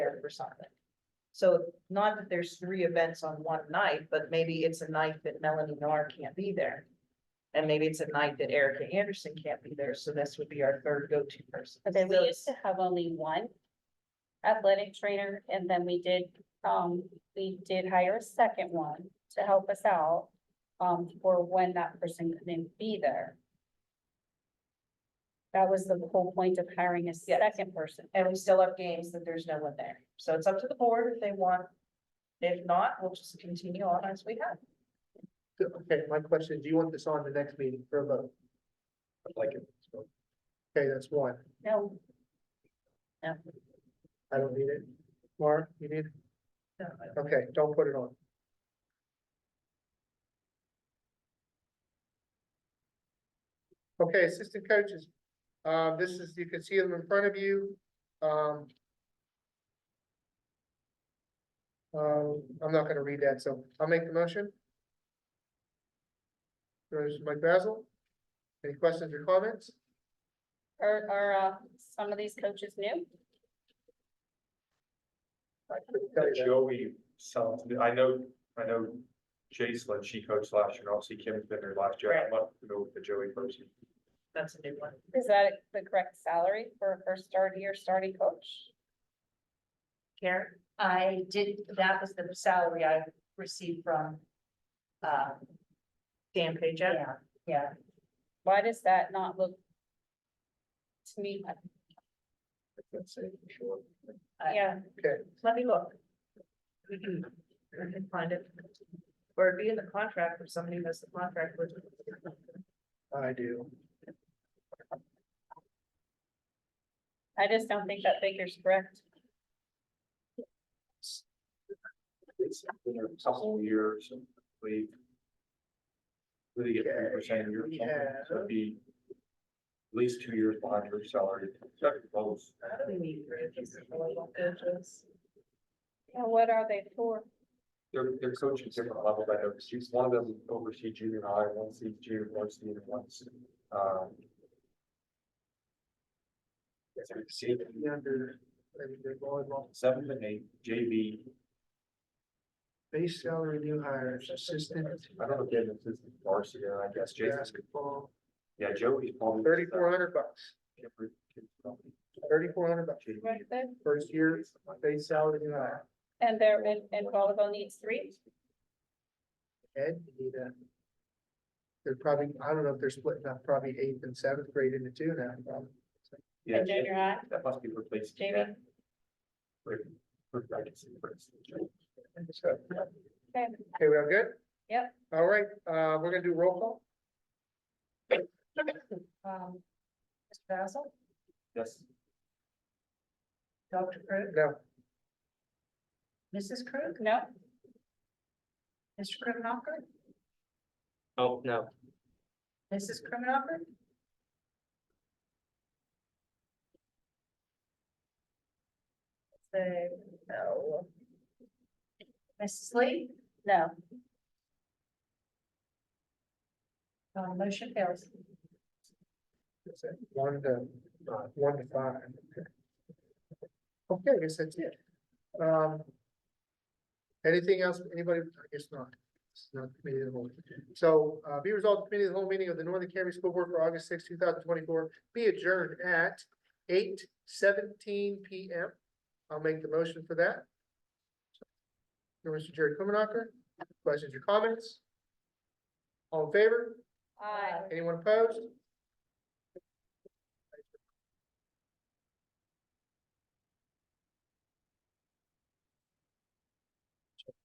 something. So not that there's three events on one night, but maybe it's a night that Melanie Nar can't be there. And maybe it's a night that Erica Anderson can't be there, so this would be our third go-to person. Okay, we So used to have only one athletic trainer and then we did, um, we did hire a second one to help us out. Um, for when that person couldn't be there. That was the whole point of hiring a Yes. second person. And we still have games that there's no one there, so it's up to the board if they want. If not, we'll just continue on as we have. Okay, my question, is, do you want this on the next meeting for a vote? I'd like it. so. Okay, that's one. No, I don't need it. Laura, you need, it? okay, don't put it on. Okay, assistant coaches. Um, this is, you can see them in front of you. Um. um, I'm not gonna read that, so I'll make the motion. There's Mike Basil. Any questions or comments? are, are, uh, some of these coaches new? I couldn't tell you that. Joey sounds, I know, I know Jason, she coached last year, and obviously Kim's been there last year, I'm not familiar with the Joey person. That's a new one. Is that the correct salary for a first start year starting coach? Karen? I did, that was the salary I received from, uh, Dan Pajek? yeah, yeah. Why does that not look? To me, Let's see, sure. yeah, Okay. Let me look. We can, we can find it. Or it'd be in the contract if somebody has the contract with. I do. I just don't think that figure's correct. It's been there a couple of years, and we. Really get three percent a year, or something, so it'd be. At least two years behind your salary, check those, We need bridges, really want bridges. And what are they for? they're, they're coaching different levels, I know, she's one of them oversees junior high, one sees junior, one sees one's, um. It's a senior. Under, maybe the volleyball, seven and eight, JV, base salary, new hires, assistant, I don't know if Dennis is varsity, and I guess Jason, basketball, yeah, Joey's probably. thirty-four hundred bucks, thirty-four hundred bucks, JV. Right there? first year, base salary, new hire. And they're in, and volleyball needs three? Ed, you need a. They're probably, I don't know if they're splitting up probably eighth and seventh grade into two now, probably. Yeah, in junior high? that must be replaced. JV. yeah. Right, right, I can see it. So, Okay, Okay, we all good? Yep. All right, uh, we're gonna do roll call, Um, Mr. Basil, Yes, Dr. Krug, no, Mrs. Krug, no, Mr. Krimenacher? Oh, no, Mrs. Krimenacher? Say, no. Mrs. Lee, no. uh, motion fails. That's it. One to, uh, one to five. Okay, I guess that's it. Um. Anything else, anybody, I guess not. It's not committee of the whole. So, uh, be resolved, the committee of the whole meeting of the Northern Cambria School Board for August sixth, two thousand twenty-four, be adjourned at eight seventeen P M. I'll make the motion for that. Mr. Jerry Kummenacher, questions or comments? All in favor? I Anyone opposed?